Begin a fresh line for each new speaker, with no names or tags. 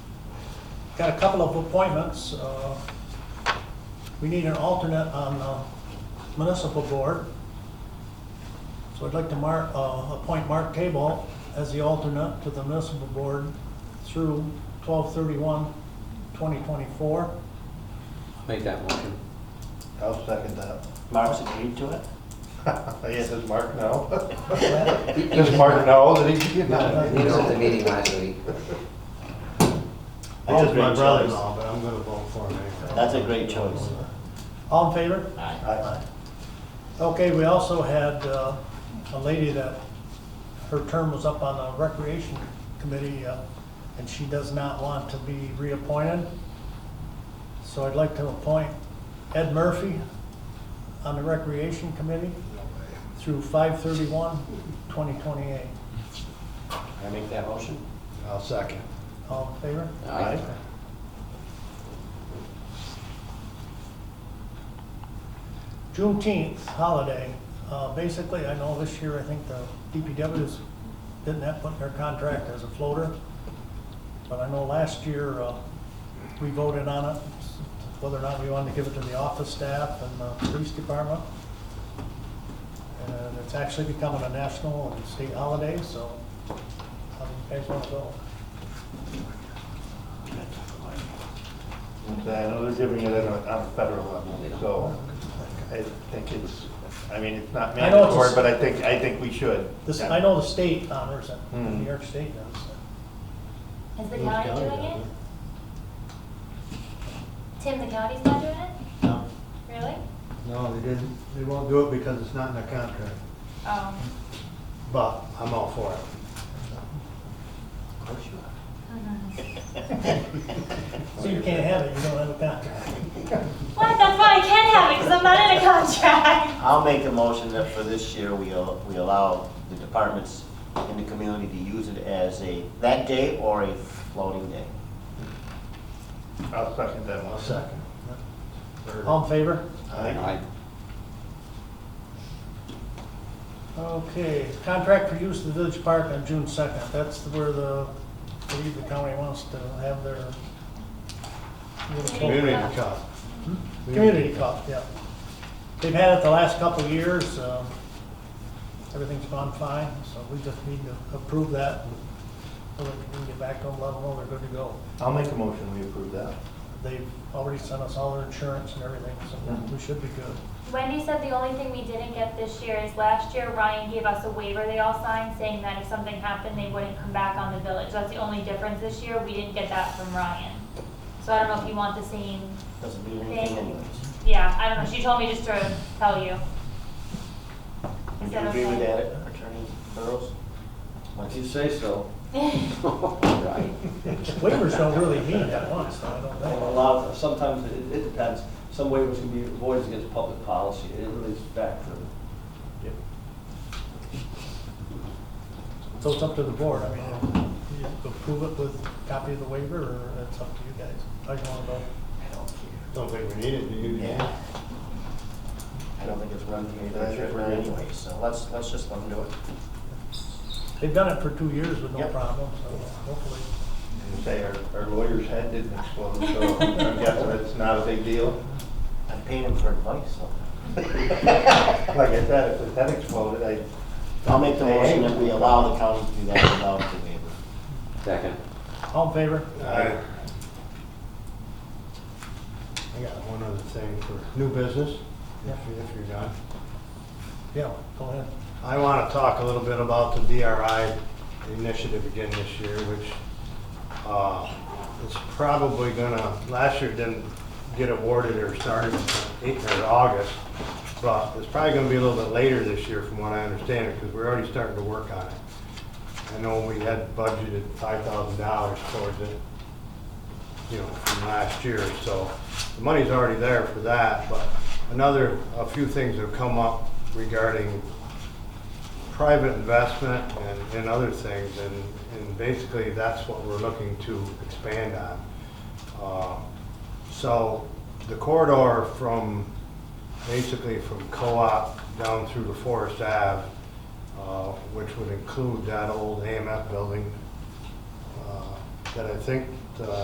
Got a couple of appointments. Uh, We need an alternate on the municipal board. So I'd like to mark, uh, appoint Mark Cable as the alternate to the municipal board through 12 2024
Make that motion.
I'll second that.
Mark's agreed to it?
Yeah, does Mark know?
That
Does Mark know that he can
No,
He was at
get
the meeting last week.
That's a great choice.
but I'm gonna vote for him anyway.
That's a great choice.
All in favor?
Aye.
I
Okay, we also had uh, a lady that, her term was up on the recreation committee, uh, and she does not want to be reappointed. So I'd like to appoint Ed Murphy on the recreation committee through 5/31/2028.
I make that motion?
I'll second.
All in favor?
Aye.
Juneteenth holiday, uh, basically, I know this year, I think the DPW's didn't have put in their contract as a floater, but I know last year, uh, we voted on it, whether or not we wanted to give it to the office staff and the police department. And it's actually becoming a national and state holiday, so how do you guys want to go?
I know they're giving it on a- on a federal level, so I think it's, I mean, it's not
I know it's a-
mandatory, but I think, I think we should.
This, I know the state honors it,
Hmm.
New York State does. it.
Is the
Who's
county
county
doing
does
it?
it?
Tim, the county's not doing it?
No,
Really?
no, they didn't, they won't do it because it's not in their contract,
Oh.
but I'm all for it.
Of course you are.
So you can't have it, you don't have a contract.
What? That's why I can't have it because I'm not in a contract.
I'll make a motion that for this year, we, al- we allow the departments in the community to use it as a, that day or a floating day.
I'll second that
I'll
one.
second.
All in favor?
Aye.
Okay, contract for use of the village park on June second, that's where the, I believe the county wants to have their
Community cup.
community cup, yeah. They've had it the last couple of years, uh, everything's gone fine, so we just need to approve that. So that we can get back to them, let them know they're good to go.
I'll make a motion, we approve that.
They've already sent us all their insurance and everything, so we should be good.
Wendy said the only thing we didn't get this year is last year Ryan gave us a waiver they all signed saying that if something happened, they wouldn't come back on the village. That's the only difference this year. We didn't get that from Ryan. So I don't know if you want the same,
Doesn't mean anything
Thank you.
anyways.
yeah, I don't know. She told me just to tell you.
Would
Is
you
that
agree with
okay?
that, Attorney Burrows? Once you
say so.
Waivers don't really mean that much, so I don't
Well, A
know.
lot, of- sometimes it it depends. Some waivers can be avoided against public policy. It really is back to the
So it's up to the board, I mean, you approve it with copy of the waiver, or it's up to you guys, how you wanna go.
Don't think we need it, do you?
Yeah. I don't think it's run through
I think
the
we're
right
good.
anyway, so let's, let's just let them do it.
They've done it for two years with no
Yep.
problem, so hopefully.
And say our, our lawyer's head didn't explode, so I'm guessing it's not a big deal.
I'm paying him for advice, so.
Like I said, if his head exploded, I,
I'll make the
Hey, hey.
motion that we allow the county to do that without the waiver.
Second.
All in favor?
I,
I got one other thing for new business, if you- if you're done.
Yeah, go ahead.
I want to talk a little bit about the DRI initiative again this year, which uh, is probably gonna, last year didn't get awarded or started in or August, but it's probably gonna be a little bit later this year from what I understand it, because we're already starting to work on it. I know we had budgeted $5,000 towards it, you know, from last year, so the money's already there for that, but another, a few things have come up regarding private investment and, and other things, and, and basically that's what we're looking to expand on. Uh, So the corridor from, basically from Co-op down through to Forest Ave, uh, which would include that old AMF building, uh, that I think, uh,